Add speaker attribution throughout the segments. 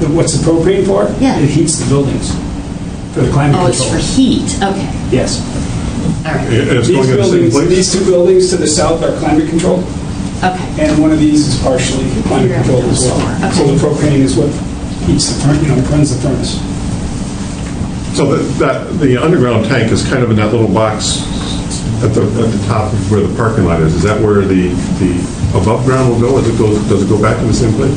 Speaker 1: the, what's the propane for?
Speaker 2: Yeah.
Speaker 1: It heats the buildings for the climate
Speaker 2: Oh, it's for
Speaker 1: control.
Speaker 2: heat, okay,
Speaker 1: Yes.
Speaker 2: all right,
Speaker 3: And it's
Speaker 1: These
Speaker 3: going in the same
Speaker 1: buildings,
Speaker 3: place?
Speaker 1: these two buildings to the south are climate controlled,
Speaker 2: okay.
Speaker 1: and one of these is partially climate controlled as well. So the propane is what heats the, furnace, you know, runs the furnace.
Speaker 3: So that- that, the underground tank is kind of in that little box at the, at the top of where the parking lot is. Is that where the, the above ground will go? Does it go, does it go back to the same place?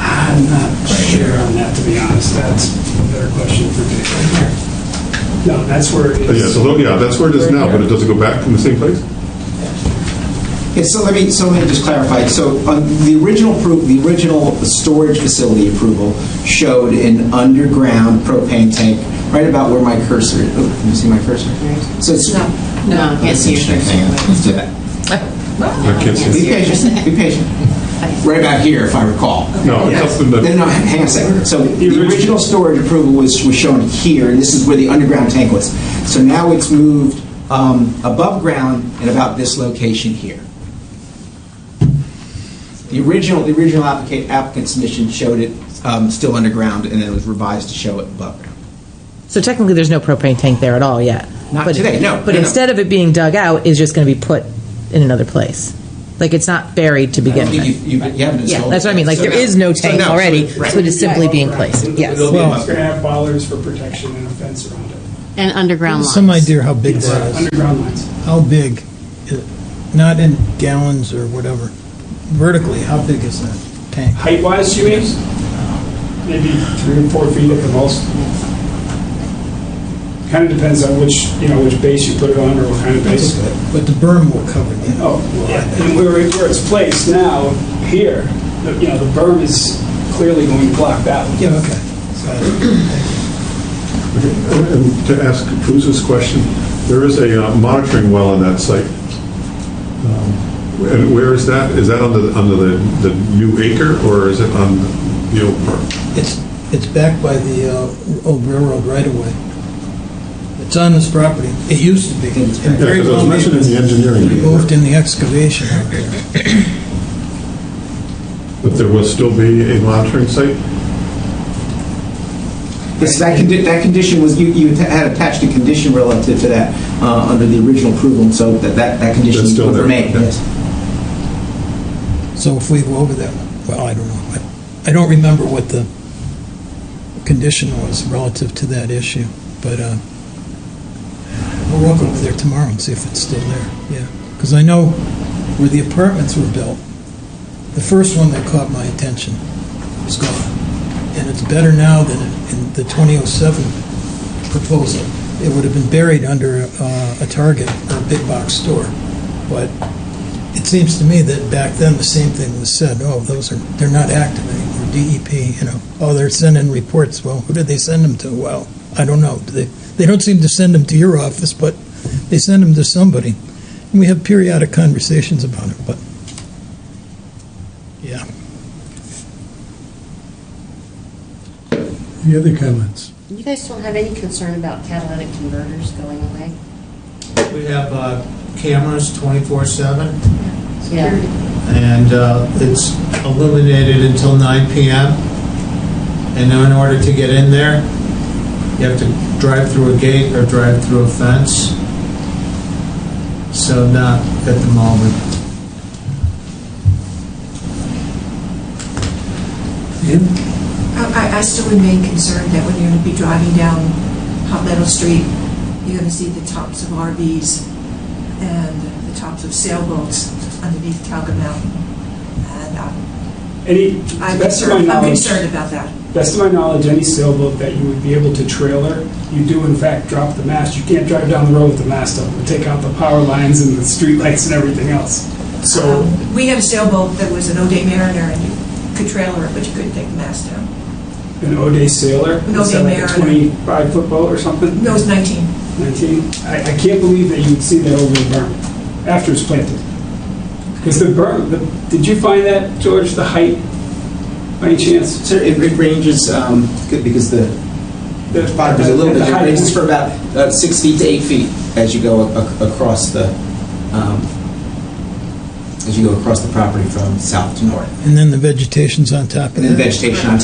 Speaker 1: I'm not sure on that, to be honest. That's a better question for Dave. No, that's where it
Speaker 3: Uh, Yeah,
Speaker 1: is.
Speaker 3: so, yeah, that's where it is now, but it doesn't go back in the same place?
Speaker 4: Yeah, so let me, so let me just clarify. So um, the original, appro- the original storage facility approval showed an underground propane tank right about where my cursor, oh, can you see my cursor? So it's.
Speaker 2: No, I can't see your cursor.
Speaker 4: Hang on, let's do that.
Speaker 3: I can't
Speaker 4: Be
Speaker 3: see. it.
Speaker 4: patient, be patient. Right about here, if I recall.
Speaker 3: No, it's up in the.
Speaker 4: No, no, hang on a second. So the
Speaker 1: original-
Speaker 4: original storage approval was, was shown here, and this is where the underground tank was. So now it's moved um, above ground and about this location here. The original, the original applica- applicant submission showed it um, still underground, and then it was revised to show it above ground.
Speaker 5: So technically, there's no propane tank there at all yet.
Speaker 4: Not
Speaker 5: But-
Speaker 4: today, no,
Speaker 5: But
Speaker 4: no, no.
Speaker 5: instead of it being dug out, it's just going to be put in another place. Like, it's not buried to
Speaker 4: I don't
Speaker 5: begin
Speaker 4: think
Speaker 5: with.
Speaker 4: you've- you've- you haven't
Speaker 5: Yeah,
Speaker 4: installed.
Speaker 5: that's what I mean, like,
Speaker 4: So
Speaker 5: there is no tank
Speaker 4: so so-
Speaker 5: already, so
Speaker 4: right.
Speaker 5: it is simply being placed, yes.
Speaker 1: The building's
Speaker 6: Well-
Speaker 1: gonna have bollards for protection and a fence around it.
Speaker 2: And underground lines.
Speaker 6: Some idea how big that is.
Speaker 1: Underground lines.
Speaker 6: How big? It- Not in gallons or whatever. Vertically, how big is that tank?
Speaker 1: Height-wise, you mean? Maybe three or four feet at the most. Kind of depends on which, you know, which base you put it on or what kind of base.
Speaker 6: But the berm will cover that.
Speaker 1: Oh, and where it- where it's placed now, here, the- you know, the berm is clearly going to block that one.
Speaker 6: Yeah, okay. So,
Speaker 3: And to ask Cruz's question, there is a uh, monitoring well on that site. Um, And where is that? Is that on the, under the, the new acre, or is it on the old part?
Speaker 6: It's, it's backed by the uh, old railroad right away. It's on this property. It used to be.
Speaker 4: think it's
Speaker 6: And
Speaker 3: Yeah,
Speaker 6: very
Speaker 3: because it was
Speaker 6: well
Speaker 3: mentioned in the
Speaker 6: maybe
Speaker 3: engineering.
Speaker 6: Moved in the excavation out there.
Speaker 3: But there will still be a monitoring site?
Speaker 4: Yes, that condi, that condition was, you, you had attached a condition relative to that, uh, under the original approval, and so that, that, that condition
Speaker 3: That's
Speaker 4: was
Speaker 3: still there,
Speaker 4: remained,
Speaker 3: okay.
Speaker 4: yes.
Speaker 6: So if we go over that, well, I don't know. I- I don't remember what the condition was relative to that issue, but uh, we'll walk over there tomorrow and see if it's still there, yeah. Because I know where the apartments were built, the first one that caught my attention is gone. And it's better now than in the 2007 proposal. It would have been buried under uh, a Target or a big box store, but it seems to me that back then, the same thing was said, oh, those are, they're not active anymore, DEP, you know, oh, they're sending reports, well, who do they send them to? Well, I don't know, they, they don't seem to send them to your office, but they send them to somebody. And we have periodic conversations about it, but, yeah.
Speaker 7: Any other comments?
Speaker 8: You guys don't have any concern about catalytic converters going away?
Speaker 9: We have uh, cameras 24/7,
Speaker 8: Yeah.
Speaker 9: and uh, it's illuminated until 9 PM. And in order to get in there, you have to drive through a gate or drive through a fence. So not at the moment.
Speaker 10: I, I- I still remain concerned that when you're going to be driving down Hot Meadow Street, you're going to see the tops of RVs and the tops of sailboats underneath Talca Mountain. And uh,
Speaker 1: Any, to the
Speaker 10: I'm
Speaker 1: best of my
Speaker 10: concerned, I'm
Speaker 1: knowledge,
Speaker 10: concerned about that.
Speaker 1: best of my knowledge, any sailboat that you would be able to trailer, you do in fact drop the mast. You can't drive down the road with the mast up. It'll take out the power lines and the streetlights and everything else. So
Speaker 10: Um, We had a sailboat that was an O'Day Mariner, and you could trailer it, but you couldn't take the mast down.
Speaker 1: an O'Day sailor,
Speaker 10: An
Speaker 1: is that
Speaker 10: O'Day
Speaker 1: like a
Speaker 10: Mariner.
Speaker 1: 25 foot boat or something?
Speaker 10: No, it was 19.
Speaker 1: 19? I, I can't believe that you would see that over the berm after it's planted. Because the berm, the, did you find that, George, the height, by any chance?
Speaker 4: So it it ranges, um, good, because the
Speaker 1: The
Speaker 4: bottom is a little
Speaker 1: the
Speaker 4: bit, it
Speaker 1: height-
Speaker 4: ranges for about uh, six feet to eight feet as you go ac- across the, um, as you go across the property from south to north.
Speaker 6: And then the vegetation's on top of
Speaker 4: And then
Speaker 6: that.
Speaker 4: vegetation on